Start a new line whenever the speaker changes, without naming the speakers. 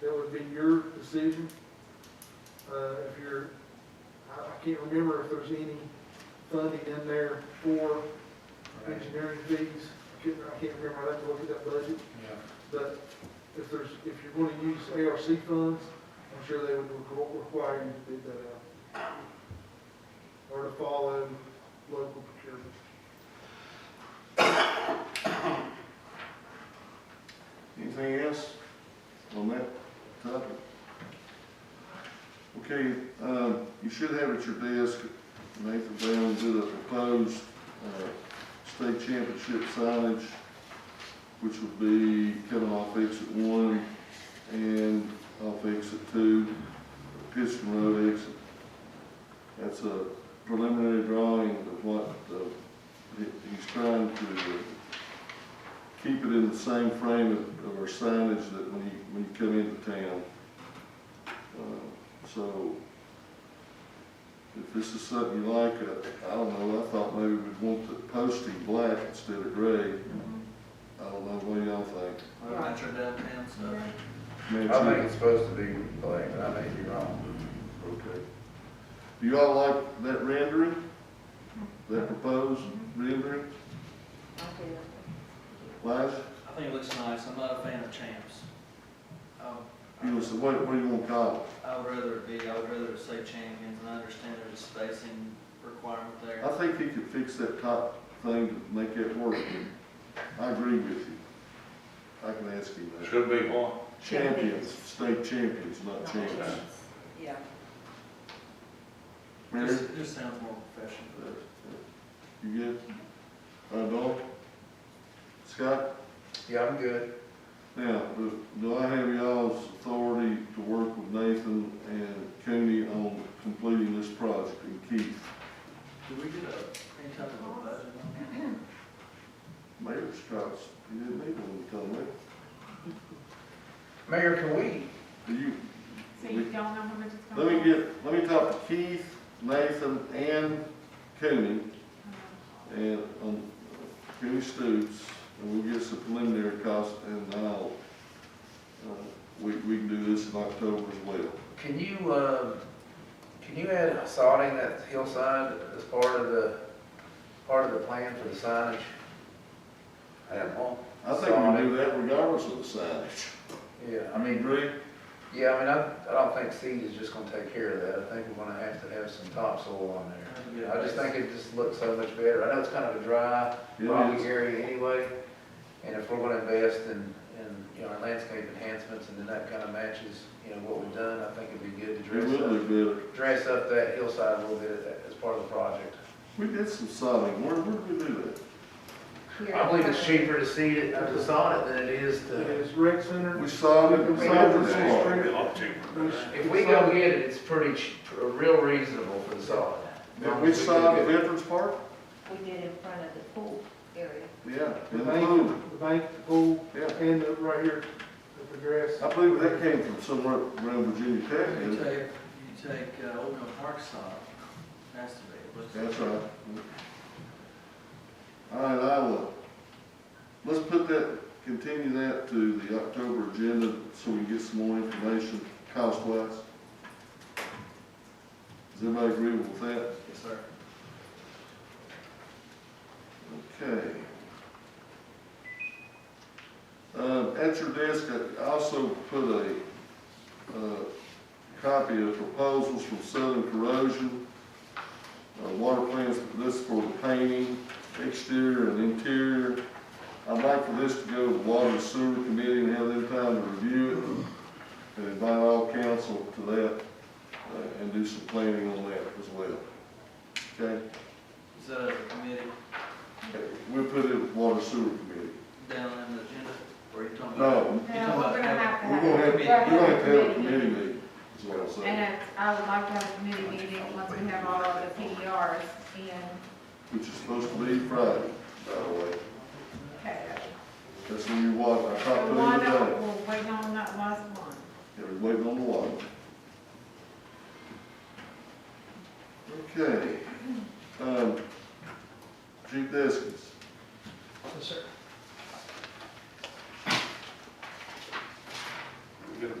be your decision. Uh, if you're, I, I can't remember if there's any funding in there for engineering fees. I couldn't, I can't remember, I'd have to look at that budget,
Yeah,
but if there's, if you're gonna use ARC funds, I'm sure they would requ- require you to bid that out. Or to follow local procurement.
Anything else on that topic? Okay, um, you should have at your desk, Nathan Brown did a proposed, uh, state championship signage, which would be coming off exit one and off exit two, Piston Road exit. That's a preliminary drawing of what, uh, he- he's trying to uh, keep it in the same frame of of our signage that when you, when you come into town. Uh, So, if this is something you like, uh, I don't know, I thought maybe we'd want the posting black instead of gray. I don't know, what y'all think?
Well, that's your downtown stuff.
Man,
I
it's-
think it's supposed to be blank, but I may be wrong.
Okay. Do y'all like that rendering? That proposed rendering? Liza,
I think it looks nice, I'm not a fan of champs. Um,
you know, so what, what do you want to call it?
I would rather it be, I would rather it say champions, and I understand there's a spacing requirement there.
I think he could fix that top thing to make that work. I agree with you. I can ask him that.
Should be one.
Champions, state champions, not champions.
Yeah.
Mary?
Just, just sounds more professional.
You good? Uh, Dawn? Scott?
Yeah, I'm good.
Now, do- do I have y'all's authority to work with Nathan and Cooney on completing this project and Keith?
Do we get a, any type of a budget on that?
Mayor Scott's, he didn't need one to come with.
Mayor, can we,
Do you,
So you don't know how much
Let
it's gonna
me
cost?
get, let me talk to Keith, Nathan, and Cooney, and, um, Cooney Stoops, and we'll get some preliminary costs, and I'll, uh, we, we can do this in October as well.
can you, um, can you add sodding that hillside as part of the, part of the plan for the signage? I don't know.
I think we can do that regardless of the signage.
Yeah, I mean,
Agree?
yeah, I mean, I, I don't think seed is just gonna take care of that. I think we're gonna have to have some topsoil on there.
Kind of get a
I just
base.
think it just looks so much better. I know it's kind of a dry,
It
rocky
is.
area anyway, and if we're gonna invest in, in, you know, landscape enhancements, and then that kind of matches, you know, what we've done, I think it'd be good to
It
dress
will
up,
look better.
dress up that hillside a little bit as- as part of the project.
We did some sodding, where, where did we do that?
I believe it's cheaper to seed it, to sod it than it is to,
Is rec center?
We sodded,
We
we
had
sodded
the
that part.
street-
if we go get it, it's pretty, ch- pr- real reasonable for the sod.
Now, we sodded Veterans Park?
We did in front of the pool area.
Yeah.
The
in the
bank,
pool.
the bank, the pool,
Yeah.
and the, right here, the grass.
I believe that came from somewhere around Virginia Tech,
You
isn't it?
take, you take, uh, Old Mill Park style, has to be, what's the-
That's right. All right, I will, let's put that, continue that to the October agenda so we can get some more information cost wise. Does everybody agree with that?
Yes, sir.
Okay. Um, at your desk, I also put a, uh, copy of proposals from Southern Corrosion. Uh, water plants, this for the painting, exterior and interior. I'd like for this to go to Water and Sewer Committee and have them time to review it. And invite all council to that, uh, and do some planning on that as well. Okay?
Is that a committee
We'll put it with Water and Sewer Committee.
down in the agenda, or you talking
No,
about?
No, we're gonna have
we're gonna have,
to have. we're
we're gonna have to have a committee meeting, is what I'm saying,
And I would like to have a committee meeting once we have all of the E PDRs and,
which is supposed to be Friday, by the way.
okay.
That's when you watch, I
The
tried putting
one
it
that
down,
we're waiting on that last one.
it was waiting on the water. Okay, um, Chief Deskins,